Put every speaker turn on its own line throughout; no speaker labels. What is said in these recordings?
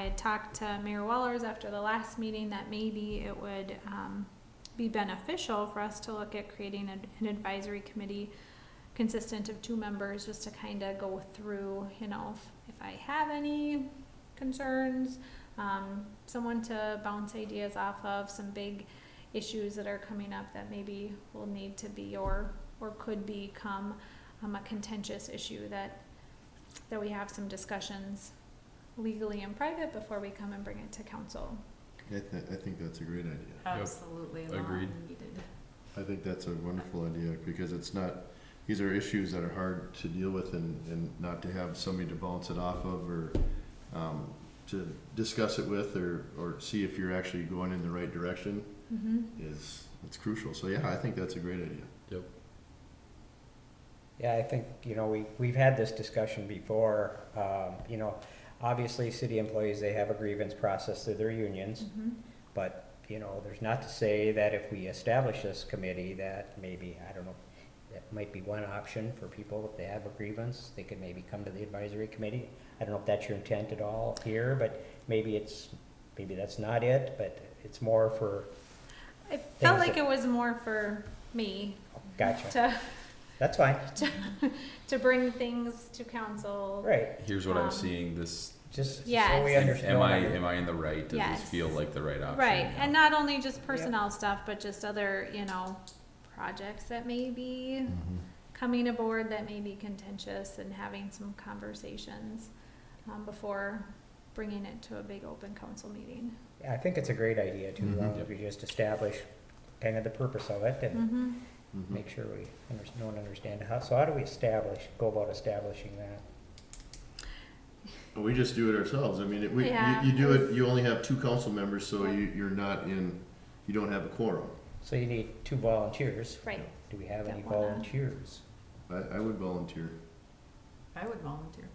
I talked to Mayor Wellers after the last meeting that maybe it would um, be beneficial for us to look at creating an an advisory committee consistent of two members, just to kind of go through, you know, if- if I have any concerns, um, someone to bounce ideas off of, some big issues that are coming up that maybe will need to be or, or could become um, a contentious issue that, that we have some discussions legally and private before we come and bring it to council.
I, th- I think that's a great idea.
Absolutely long
Agreed.
needed.
I think that's a wonderful idea because it's not, these are issues that are hard to deal with and, and not to have somebody to bounce it off of or, um, to discuss it with or, or see if you're actually going in the right direction
Mm-hmm.
is, it's crucial. So yeah, I think that's a great idea.
Yeah, I think, you know, we, we've had this discussion before, um, you know, obviously, city employees, they have a grievance process through their unions,
Mm-hmm.
but, you know, there's not to say that if we establish this committee, that maybe, I don't know, that might be one option for people, if they have a grievance, they could maybe come to the advisory committee. I don't know if that's your intent at all here, but maybe it's, maybe that's not it, but it's more for,
I felt
Things
like
that-
it was more for me
gotcha,
to,
that's fine,
to bring things to council.
right,
Here's what I'm
Um,
seeing. This
just so we
Yes. Am
understand.
am I am I in the right? Does
Yes.
this feel like the right option?
Right,
Oh, Yeah.
and not only just personnel stuff, but just other, you know, projects that may be coming aboard that may be contentious and having some conversations um, before bringing it to a big open council meeting.
I think it's a great idea to,
Mhm.
long as we just establish kind of the purpose of it and
Mm-hmm.
Mhm.
make sure we under- know and understand how, so how do we establish, go about establishing that?
But we just do it ourselves. I mean, it, we,
Yeah.
you, you do it, you only have two council members, so you, you're not in, you don't have a quorum.
So you need two volunteers.
Right. uh,
Do we have any
That wanna-
volunteers?
I, I would volunteer.
I would volunteer.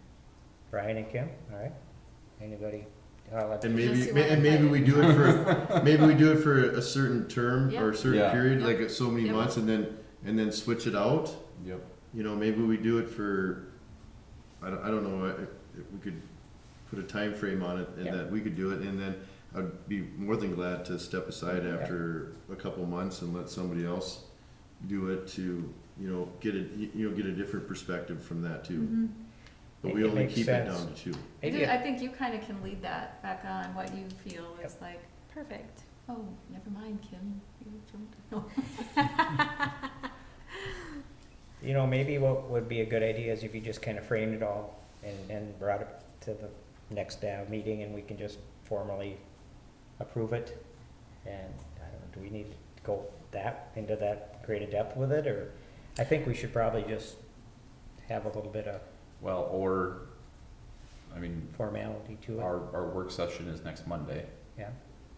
Brian and Kim, all right? Anybody? I'll let-
And
Unless
maybe,
you
ma-
wanna
and maybe
fight.
we do it for, maybe we do it for a certain term or a
Yeah.
certain
Yeah.
period,
Yeah.
like uh, so many
Yeah.
months, and then, and then switch it out.
Yep.
You know, maybe we do it for, I don't, I don't know, uh, if we could put a time frame on it and
Yeah.
that we could do it, and then I'd be more than glad to step aside
Yeah.
after a couple months and let somebody else do it to, you know, get it, you know, get a different perspective from that too.
Mm-hmm.
But
It-
we
it
only
makes
keep it
sense.
down to two.
I
Maybe,
do-
a-
I think you kinda can lead that back on what you feel is like,
Perfect.
oh, never mind, Kim, you jumped.
you know, maybe what would be a good idea is if you just kind of framed it all and, and brought it to the next uh, meeting and we can just formally approve it. And I don't know, do we need to go that, into that greater depth with it, or? I think we should probably just have a little bit of
Well, or I mean,
formality to it,
our our work session is next Monday.
yeah.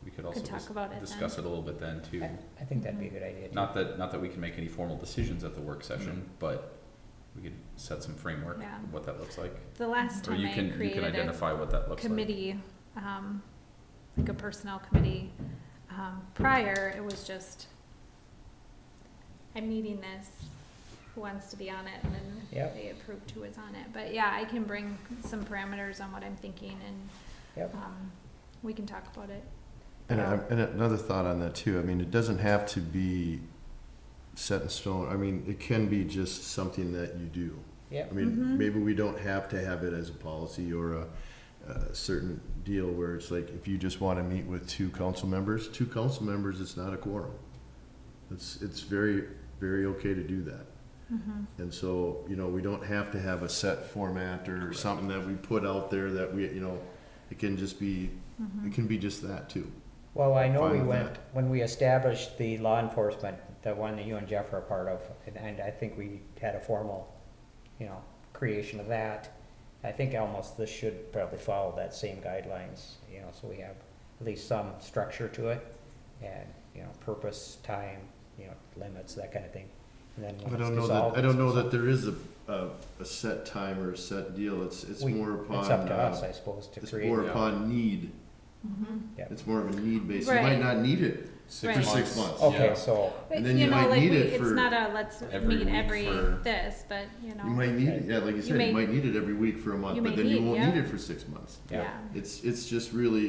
We could also
Could talk
dis-
about it
discuss it a little bit then too.
I, I think that'd be a good idea. too.
Not that not that we can make any formal decisions at the work
Mm-hmm.
session, but we could set some framework
Yeah.
of what that looks like.
The last
Or
time
you
I
can you can
created
identify what that
a
looks like.
committee, um, like a personnel committee, um, prior, it was just, I'm needing this, who wants to be on it, and then
Yep.
they approved who was on it. But yeah, I can bring some parameters on what I'm thinking and,
Yep.
um, we can talk about it.
And, I, and another thought on that too. I mean, it doesn't have to be set in stone. I mean, it can be just something that you do.
Yep.
I mean,
Mhm.
maybe we don't have to have it as a policy or a, a certain deal where it's like if you just want to meet with two council members, two council members, it's not a quorum. It's it's very very okay to do that. And so you know, we don't have to have a set format or something that we put out there that we you know, it can just be it can be just that too.
Well, I know
Fine
we
with
went, when we established the law enforcement, the one that you and Jeff are a part of, and, and I think we had a formal, you know, creation of that. I think almost this should probably follow that same guidelines, you know, so we have at least some structure to it. And, you know, purpose, time, you know, limits, that kind of thing. And then
I
when it's
don't know
dissolved,
that, I don't know
it's-
that there is a, a, a set time or a set deal, it's, it's
we-
more upon,
It's up to
uh,
us, I suppose, to
it's
create.
more
Yeah.
upon need,
Mhm.
Yep.
it's more of a need basis, you
Right.
might not need it
Right.
six months.
For
six months.
Okay,
yeah.
so,
But,
And then you
know,
might
like
need
we-
it
It's
for
not a, let's
every
meet
week
every
for-
this, but, you
You
know,
might need it, yeah, like you said,
may-
you might need it every week for a
you
month,
may
but then you
need-
won't
yeah.
need it for six months.
yeah.
It's, it's just really,